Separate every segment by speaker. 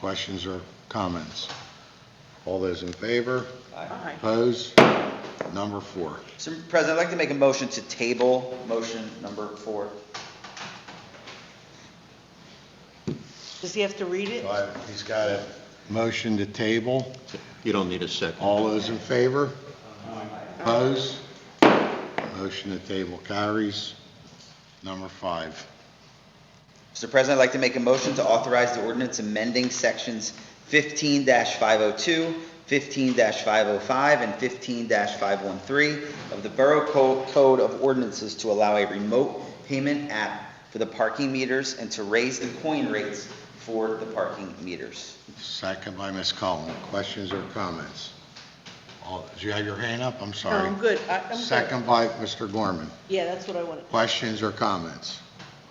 Speaker 1: questions or comments? All those in favor?
Speaker 2: Aye.
Speaker 1: Opposed? Number four.
Speaker 3: So, President, I'd like to make a motion to table motion number four.
Speaker 2: Does he have to read it?
Speaker 1: Well, He's got a motion to table.
Speaker 4: You don't need a second.
Speaker 1: All those in favor? Opposed? Motion to table carries. Number five.
Speaker 3: Mr. President, I'd like to make a motion to authorize the ordinance amending sections fifteen five oh two, fifteen five oh five, and fifteen five one three of the Borough Co- Code of Ordinances to allow a remote payment app for the parking meters and to raise the coin rates for the parking meters.
Speaker 1: Second by Ms. Cullen. Questions or comments? All- Do you have your hand up? I'm
Speaker 2: No,
Speaker 1: sorry.
Speaker 2: Oh, I'm good. I- I'm good.
Speaker 1: Second by Mr. Gorman.
Speaker 2: Yeah, that's what I wanted.
Speaker 1: Questions or comments?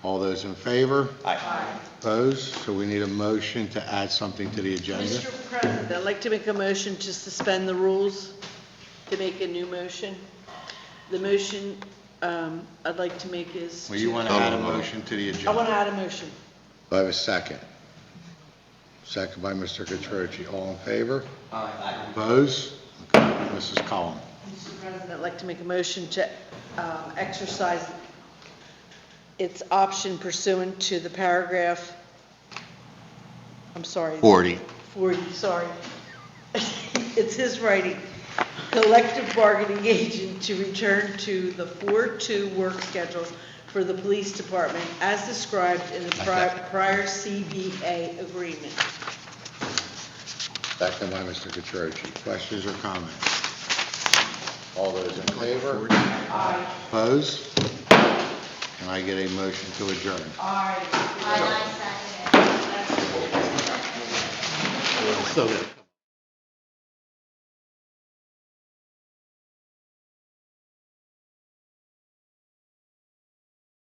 Speaker 1: All those in favor?
Speaker 3: Aye.
Speaker 1: Opposed? So we need a motion to add something to the agenda.
Speaker 2: Mr. President, I'd like to make a motion to suspend the rules, to make a new motion. The motion um, I'd like to make is.
Speaker 1: Well, you want to add a motion to the
Speaker 2: I want
Speaker 1: agenda?
Speaker 2: to add a motion.
Speaker 1: Do I have a second? Second by Mr. Catroci. All in favor?
Speaker 3: Aye.
Speaker 1: Opposed? Okay, Mrs. Cullen.
Speaker 2: Mr. President, I'd like to make a motion to um, exercise its option pursuant to the paragraph, I'm sorry.
Speaker 4: 40.
Speaker 2: 40, sorry. It's his writing. Collective bargaining agent to return to the 4-2 work schedule for the police department as described in the pri- prior CBA agreement.
Speaker 1: Second by Mr. Catroci. Questions or comments? All those in favor? Opposed? Can I get a motion to adjourn?
Speaker 5: Aye, aye, second.
Speaker 4: So good.